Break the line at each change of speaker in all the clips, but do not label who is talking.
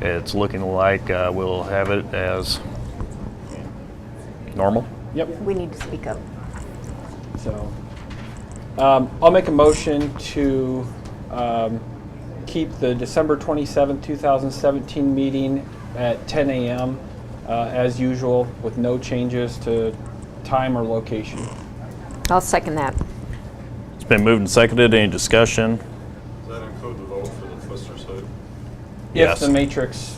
It's looking like uh, we'll have it as normal.
Yep.
We need to speak up.
So, um, I'll make a motion to um, keep the December 27th, 2017 meeting at 10 a.m. uh, as usual with no changes to time or location.
I'll second that.
It's been moved and seconded. Any discussion?
Does that include the vote for the Twister site?
Yes.
If the matrix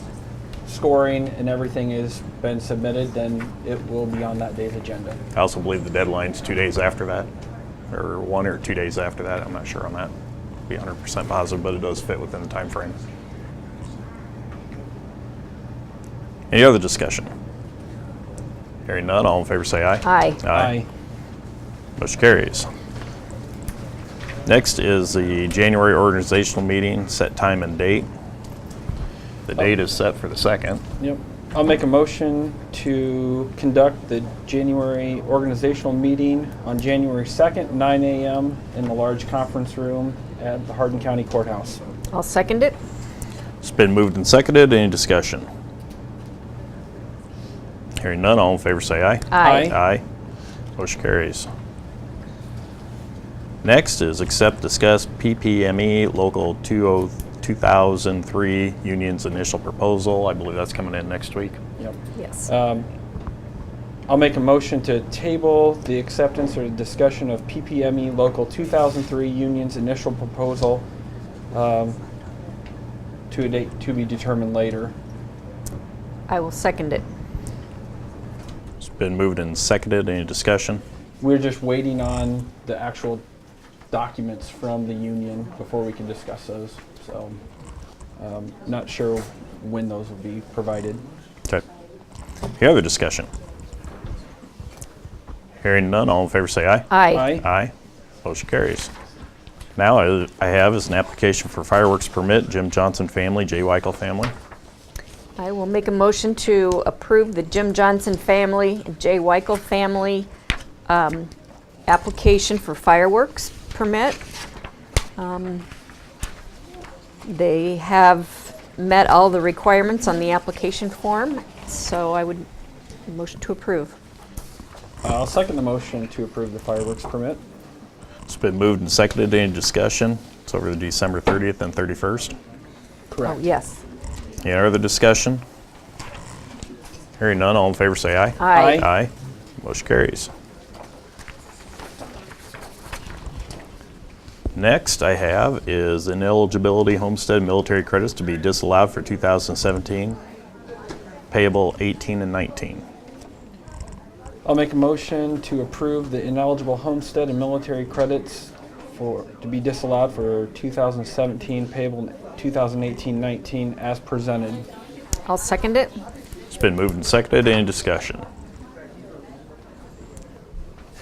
scoring and everything has been submitted, then it will be on that day's agenda.
I also believe the deadline's two days after that, or one or two days after that. I'm not sure on that. Be 100% positive, but it does fit within the time frame. Any other discussion? Hearing none, all in favor say aye.
Aye.
Aye. Motion carries. Next is the January organizational meeting, set time and date. The date is set for the second.
Yep. I'll make a motion to conduct the January organizational meeting on January 2nd, 9 a.m. in the large conference room at the Hardin County Courthouse.
I'll second it.
It's been moved and seconded. Any discussion? Hearing none, all in favor say aye.
Aye.
Aye. Motion carries. Next is accept, discuss PPME E Local oh, 20- 2003 Union's initial proposal. I believe that's coming in next week.
Yep.
Yes.
Um, I'll make a motion to table the acceptance or discussion of PPME E Local 2003 Union's initial proposal um, to a date to be determined later.
I will second it.
It's been moved and seconded. Any discussion?
We're just waiting on the actual documents from the union before we can discuss those. So, um, not sure when those will be provided.
Okay. Any other discussion? Hearing none, all in favor say aye.
Aye.
Aye. Motion carries. Now I I have is an application for fireworks permit, Jim Johnson family, Jay Weichel family.
I will make a motion to approve the Jim Johnson family and Jay Weichel family um, application for fireworks permit. Um, They have met all the requirements on the application form, so I would, motion to approve.
I'll second the motion to approve the fireworks permit.
It's been moved and seconded. Any discussion? It's over the December 30th and 31st.
Oh,
Correct.
yes.
Any other discussion? Hearing none, all in favor say aye.
Aye.
Aye. Motion carries. Next I have is ineligibility homestead military credits to be disallowed for 2017, payable 18 and 19.
I'll make a motion to approve the ineligible homestead and military credits for, to be disallowed for 2017 payable 2018-19 as presented.
I'll second it.
It's been moved and seconded. Any discussion?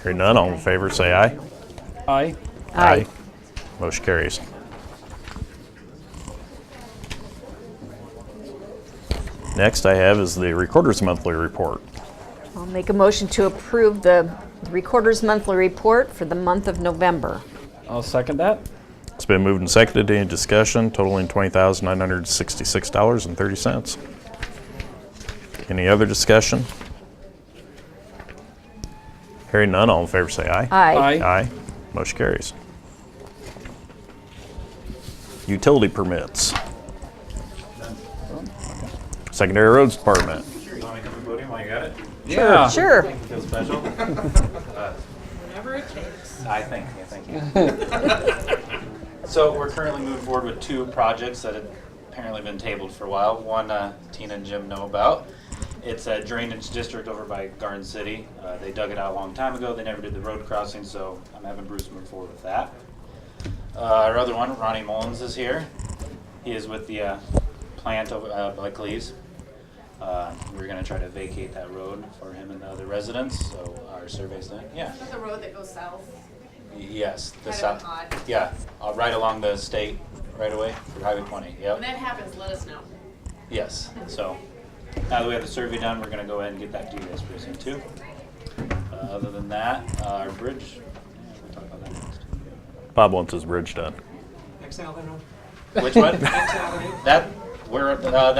Hearing none, all in favor say aye.
Aye.
Aye.
Motion carries. Next I have is the Recorder's Monthly Report.
I'll make a motion to approve the Recorder's Monthly Report for the month of November.
I'll second that.
It's been moved and seconded. Any discussion totaling $20,966.30? Any other discussion? Hearing none, all in favor say aye.
Aye.
Aye. Motion carries. Utility permits. Secondary Roads Department.
You want me to come to the podium while you got it?
Yeah.
Sure.
Feel special? Whenever it takes. I think, yeah, thank you. So we're currently moving forward with two projects that had apparently been tabled for a while. One uh, Tina and Jim know about. It's a drainage district over by Garden City. Uh, They dug it out a long time ago. They never did the road crossing, so I'm having Bruce move forward with that. Uh, Our other one, Ronnie Mullins is here. He is with the uh, plant over uh, by Cleves. Uh, We're gonna try to vacate that road for him and the other residents, so our survey's done, yeah.
The road that goes south,
Yes, the
Kind of
south,
odd.
yeah, uh, right along the state, right away, for Highway twenty,
when
yep,
that happens, let us know.
yes, so. Now that we have the survey done, we're gonna go ahead and get that to you guys pretty soon too. Uh, Other than that, uh, our bridge, yeah, we'll talk about that next.
Bob wants his bridge done.
Next Avenue.
Which one?
Next Avenue.
That, where, uh,